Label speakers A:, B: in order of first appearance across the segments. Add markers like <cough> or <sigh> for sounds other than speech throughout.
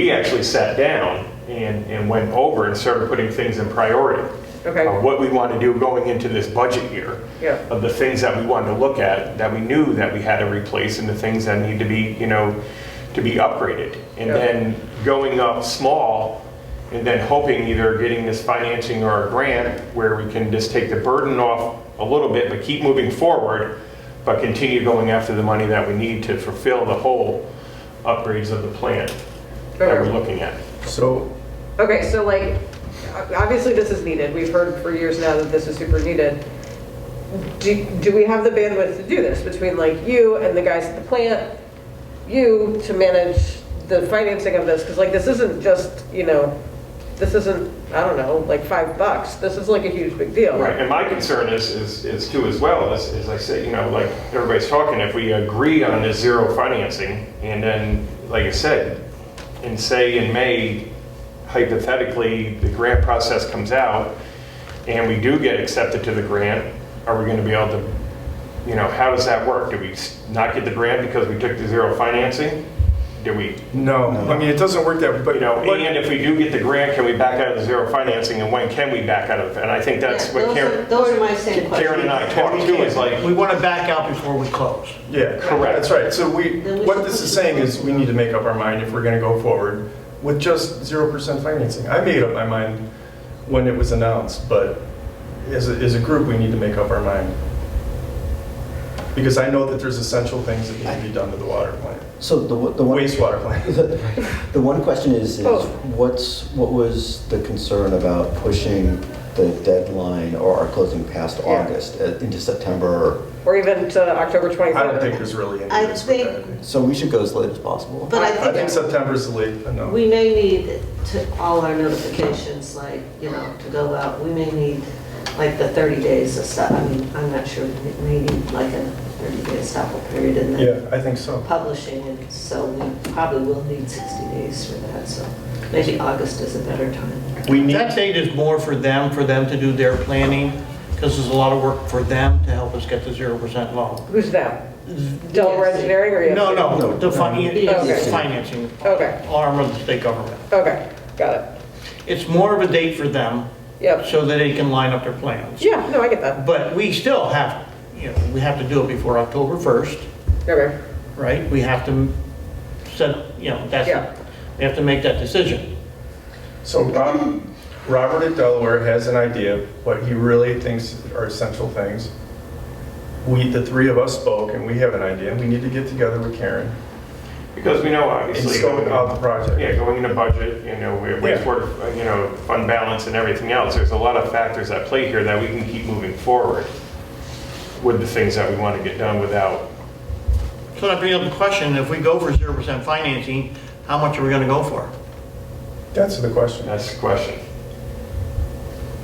A: we actually sat down and, and went over and started putting things in priority.
B: Okay.
A: Of what we want to do going into this budget year.
B: Yeah.
A: Of the things that we wanted to look at, that we knew that we had to replace, and the things that need to be, you know, to be upgraded. And
B: Yeah.
A: then going up small, and then hoping either getting this financing or a grant where we can just take the burden off a little bit, but keep moving forward, but continue going after the money that we need to fulfill the whole upgrades of the plant that we're
B: Okay.
A: looking at.
C: So,
B: Okay, so like, o- obviously this is needed. We've heard for years now that this is super needed. Do, do we have the bandwidth to do this between like you and the guys at the plant, you to manage the financing of this? Because like this isn't just, you know, this isn't, I don't know, like five bucks. This is like a huge big deal.
A: Right, and my concern is, is, is too as well, is, is I say, you know, like, everybody's talking, if we agree on this zero financing, and then, like I said, and say in May, hypothetically, the grant process comes out, and we do get accepted to the grant, are we gonna be able to, you know, how does that work? Do we s- not get the grant because we took the zero financing? Do we,
C: no, I mean, it doesn't work that, but,
A: you know,
C: but
A: and if we do get the grant, can we back out of the zero financing, and when can we back out of it? And I think that's
D: Yeah,
A: what
D: those
A: Karen.
D: are- Those are my same
A: Karen
D: questions.
A: and I talked to is like,
E: We want to back out before we close.
C: yeah,
A: Correct.
C: That's right. So we,
D: Then we
C: what
D: should
C: this
D: put
C: is
D: it
C: saying
D: forward.
C: is we need to make up our mind if we're going to go forward with just 0% financing. I made up my mind when it was announced, but as a, as a group, we need to make up our mind. Because I know that there's essential things that need to be done to the water plant,
F: So the, one- the one,
C: wastewater plant.
D: <laughs>
F: the one question is, is
B: Both.
F: what's, what was the concern about pushing the deadline or our closing past
B: Yeah.
F: August uh, into September?
B: Or even to October 23rd.
C: I don't think there's really any
D: I
C: risk with
D: think-
C: that.
F: So we should go as late as possible.
D: But
C: I
D: I
C: think
D: think
C: September's the late uh, enough.
D: we may need to, all our notifications, like, you know, to go out, we may need like the 30 days of stuff. I mean, I'm not sure, we may need like a 30-day stopper period and then
C: Yeah, I think so.
D: publishing. And so we probably will need 60 days for that, so maybe August is a better time.
C: We need
E: That date is more for them, for them to do their planning, because there's a lot of work for them to help us get the 0% loan.
B: Who's them? Delaware Engineering or E you?
E: No, no, the
B: Okay.
E: fin- financing
B: Okay.
E: arm of the state government.
B: Okay, got it.
E: It's more of a date for them,
B: Yep.
E: so that they can line up their plans.
B: Yeah, no, I get that.
E: But we still have, you know, we have to do it before October 1st,
B: Okay.
E: right? We have to set, you know,
B: Yeah.
E: that's, we have to make that decision.
C: So Rob, Robert at Delaware has an idea of what he really thinks are essential things. We, the three of us spoke, and we have an idea. We need to get together with Karen
A: because we know
C: and
A: obviously.
C: scope out the
A: Yeah,
C: project.
A: going into budget, you know, we-
C: Yeah.
A: wastewater, you know, fund balance and everything else, there's a lot of factors at play here that we can keep moving forward with the things that we want to get done without,
E: So that brings up the question, if we go for 0% financing, how much are we going to go for?
C: That's the question. That's
A: that's the question.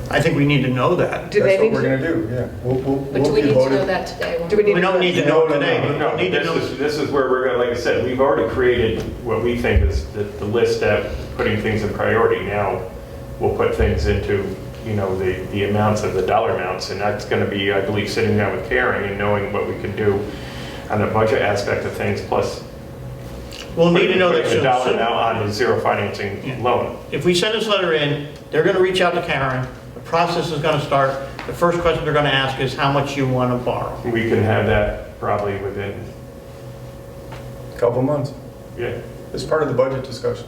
E: I think we need to know that.
B: Do they
C: what
B: need
C: we're
B: to,
C: gonna do, yeah. We'll, we'll,
G: But do
C: we'll
G: we
C: be
G: need to know
C: voted.
G: that today? when
B: do we need?
E: We don't need to know
C: No, no,
E: today.
C: no,
A: No,
E: We don't need to
A: this
E: know.
A: is, this is where we're going, like I said, we've already created what we think is the, the list that putting things in priority. Now, we'll put things into, you know, the, the amounts of the dollar amounts, and that's going to be, I believe, sitting down with Karen and knowing what we can do on the budget aspect of things, plus
E: We'll need to know
A: putting
E: that
A: the dollar amount
E: soon.
A: on the zero
E: Yeah.
A: financing loan.
E: If we send this letter in, they're going to reach out to Karen, the process is going to start. The first question they're going to ask is how much you want to borrow.
A: We can have that probably within,
C: Couple months.
A: yeah,
C: It's part of the budget discussion.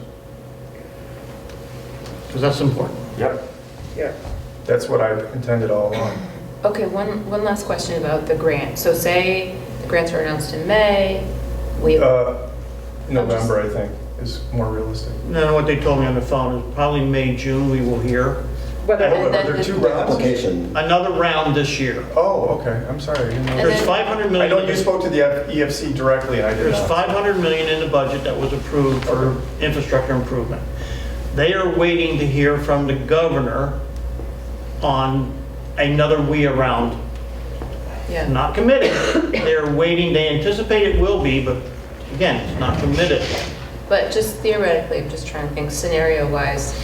E: Because that's important.
A: yep.
B: Yeah.
C: That's what I intended all along.
G: Okay, one, one last question about the grant. So say the grants were announced in May, we,
C: Uh, November, I think, is more realistic.
E: And then what they told me on the phone is probably May, June, we will hear.
B: Whether,
C: Oh,
G: then
C: there are two
G: the-
C: rounds?
F: Application,
E: Another round this year.
C: Oh, okay, I'm sorry. I didn't know.
G: And
E: There's
G: then-
E: 500
C: I
E: million.
C: know you spoke to the EFC directly, and I did
E: There's
C: not.
E: 500 million in the budget that was approved for infrastructure improvement. They are waiting to hear from the governor on another we around,
G: yeah.
E: not committed. They're waiting, they anticipate it will be, but again, it's not committed.
G: But just theoretically, I'm just trying to think scenario-wise,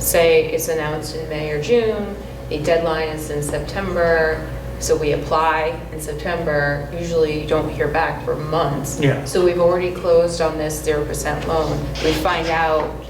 G: say it's announced in May or June, the deadline is in September, so we apply in September, usually you don't hear back for months.
E: Yeah.
G: So we've already closed on this 0% loan. We find out